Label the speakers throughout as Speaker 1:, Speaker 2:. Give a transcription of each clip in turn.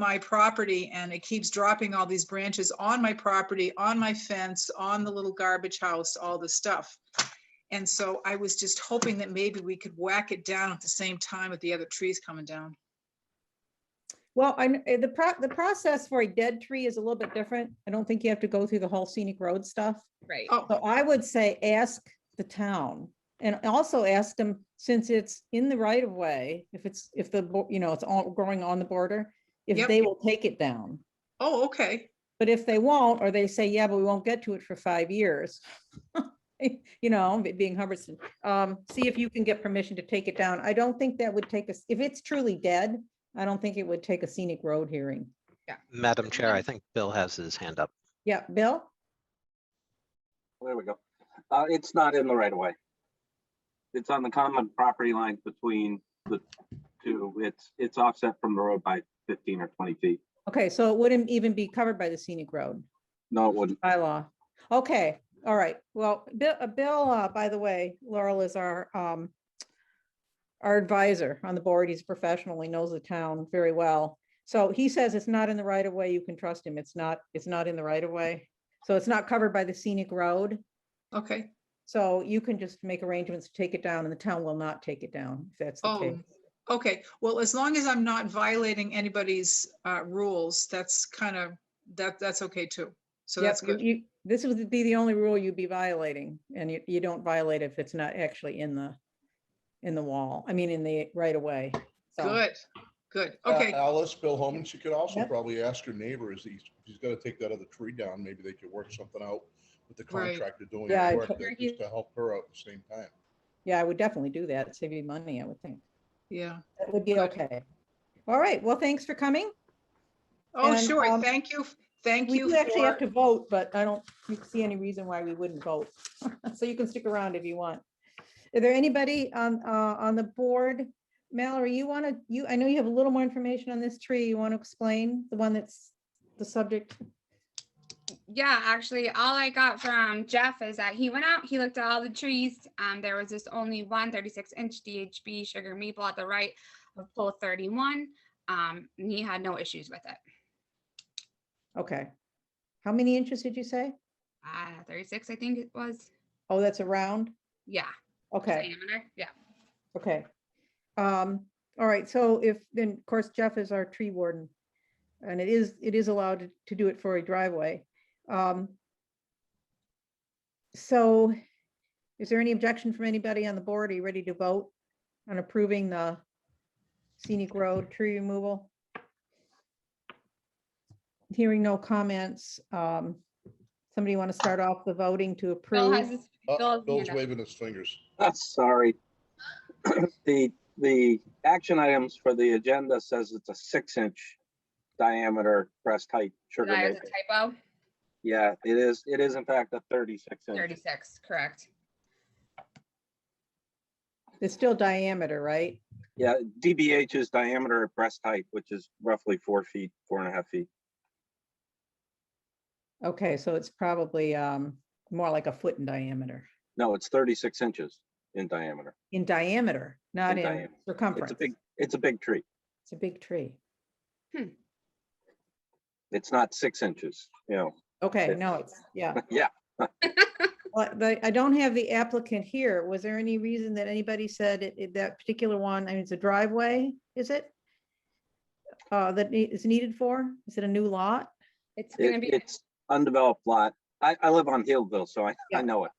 Speaker 1: my property and it keeps dropping all these branches on my property, on my fence, on the little garbage house, all the stuff. And so I was just hoping that maybe we could whack it down at the same time with the other trees coming down.
Speaker 2: Well, I, kn- eh, the pro, the process for a dead tree is a little bit different. I don't think you have to go through the whole scenic road stuff.
Speaker 3: Right.
Speaker 1: Oh,
Speaker 2: So I would say ask the town and also ask them, since it's in the right of way, if it's, if the, bo- you know, it's all growing on the border, if
Speaker 1: Yep.
Speaker 2: they will take it down.
Speaker 1: oh, okay.
Speaker 2: But if they won't, or they say, yeah, but we won't get to it for five years. You know, it being Hubbardston, um, see if you can get permission to take it down. I don't think that would take us, if it's truly dead, I don't think it would take a scenic road hearing.
Speaker 4: Madam Chair, I think Bill has his hand up.
Speaker 2: Yeah, Bill?
Speaker 5: There we go. Uh, it's not in the right of way. It's on the common property line between the two. It's, it's offset from the road by fifteen or twenty feet.
Speaker 2: Okay, so it wouldn't even be covered by the scenic road
Speaker 5: No, it wouldn't.
Speaker 2: bylaw. Okay, all right. Well, Bill, uh, Bill, uh, by the way, Laurel is our, um, our advisor on the board. He's a professional. He knows the town very well. So he says it's not in the right of way. You can trust him. It's not, it's not in the right of way. So it's not covered by the scenic road.
Speaker 1: Okay.
Speaker 2: So you can just make arrangements to take it down and the town will not take it down if that's the case.
Speaker 1: Oh, okay. Well, as long as I'm not violating anybody's uh, rules, that's kind of, that, that's okay too. So
Speaker 2: Yep,
Speaker 1: that's good.
Speaker 2: You, this would be the only rule you'd be violating, and you, you don't violate if it's not actually in the, in the wall, I mean, in the right of way. So,
Speaker 1: Good, good.
Speaker 6: Uh,
Speaker 1: Okay.
Speaker 6: Alice, Bill Holman, she could also
Speaker 2: Yep.
Speaker 6: probably ask her neighbor, is he, if he's gonna take that other tree down, maybe they could work something out with the
Speaker 1: Right.
Speaker 6: contractor doing
Speaker 2: Yeah, I
Speaker 6: the work,
Speaker 2: tot-
Speaker 6: that- just to help her out at the same time.
Speaker 2: yeah, I would definitely do that. It'd Save you money, I would think.
Speaker 1: Yeah.
Speaker 2: That would be
Speaker 1: Good.
Speaker 2: okay. All right, well, thanks for coming.
Speaker 1: Oh,
Speaker 2: And,
Speaker 1: sure.
Speaker 2: um,
Speaker 1: Thank you. Thank
Speaker 2: We
Speaker 1: you.
Speaker 2: do actually have
Speaker 1: for
Speaker 2: to vote, but I don't see any reason why we wouldn't vote. So you can stick around if you want. Are there anybody on, uh, on the board? Mallory, you want to, you, I know you have a little more information on this tree. You want to explain the one that's the subject?
Speaker 3: Yeah, actually, all I got from Jeff is that he went out, he looked at all the trees. Um, there was this only one 36 inch DHB sugar maple at the right of pole 31. Um, and he had no issues with it.
Speaker 2: Okay. How many inches did you say?
Speaker 3: Uh, 36, I think it was.
Speaker 2: Oh, that's a round?
Speaker 3: Yeah.
Speaker 2: Okay,
Speaker 3: diameter, Yeah.
Speaker 2: okay. Um, all right, so if, then, of course, Jeff is our tree warden. And it is, it is allowed to- to do it for a driveway. Um. So is there any objection from anybody on the board? Are you ready to vote on approving the scenic road tree removal? Hearing no comments, um, somebody want to start off the voting to
Speaker 3: Bill has
Speaker 2: approve?
Speaker 3: his, Bill
Speaker 6: Uh,
Speaker 3: has his hand
Speaker 6: Bill's
Speaker 3: up.
Speaker 6: waving his fingers.
Speaker 5: Ah, sorry. The, the action items for the agenda says it's a six inch diameter breast height sugar
Speaker 3: that is
Speaker 5: maple.
Speaker 3: a typo.
Speaker 5: Yeah, it is, it is in fact a thirty-six inch.
Speaker 3: 36, correct.
Speaker 2: It's still diameter, right?
Speaker 5: Yeah, DBH is diameter at breast height, which is roughly four feet, four and a half feet.
Speaker 2: Okay, so it's probably um more like a foot in diameter,
Speaker 5: No, it's thirty-six inches in diameter.
Speaker 2: in diameter, not
Speaker 5: In
Speaker 2: in
Speaker 5: diameter. It's
Speaker 2: circumference.
Speaker 5: a big, it's a big tree.
Speaker 2: It's a big tree.
Speaker 5: It's not six inches, you know.
Speaker 2: Okay,
Speaker 5: Yeah.
Speaker 2: no, it's, yeah.
Speaker 5: Yeah.
Speaker 2: But but I don't have the applicant here. Was there any reason that anybody said it- it- that particular one, I mean, it's a driveway, is it? Uh, that ne- is needed for? Is it a new lot?
Speaker 3: It's going to
Speaker 5: It,
Speaker 3: be,
Speaker 5: it's undeveloped lot. I, I live on Hillville, so I,
Speaker 2: Yeah.
Speaker 5: I know it.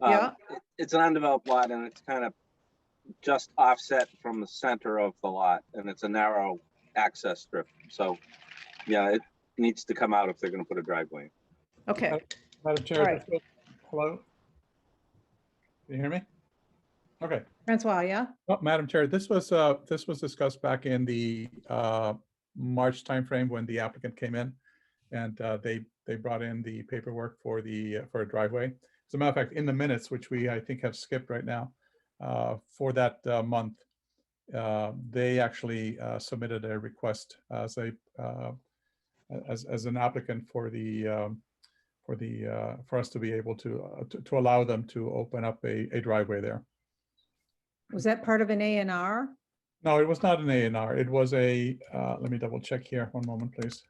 Speaker 5: Um,
Speaker 2: Yeah.
Speaker 5: it- It's an undeveloped lot and it's kind of just offset from the center of the lot and it's a narrow access strip. So, yeah, it needs to come out if they're gonna put a driveway. in. Uh,
Speaker 2: Okay,
Speaker 7: Madam
Speaker 2: All
Speaker 7: Chair,
Speaker 2: right.
Speaker 7: hello? Can you hear me? Okay.
Speaker 2: Francois, yeah?
Speaker 7: Oh, Madam Chair, this was, uh, this was discussed back in the, uh, March timeframe when the applicant came in. And, uh, they, they brought in the paperwork for the, uh, for a driveway. As a matter of fact, in the minutes, which we, I think, have skipped right now, uh, for that, uh, month, uh, they actually, uh, submitted a request as a, uh, as, as an applicant for the, um, for the, uh, for us to be able to, uh, to, to allow them to open up a, a driveway there.
Speaker 2: Was that part of an A and R?
Speaker 7: No, it was not an A and R. It was a, uh, let me double check here. One moment, please.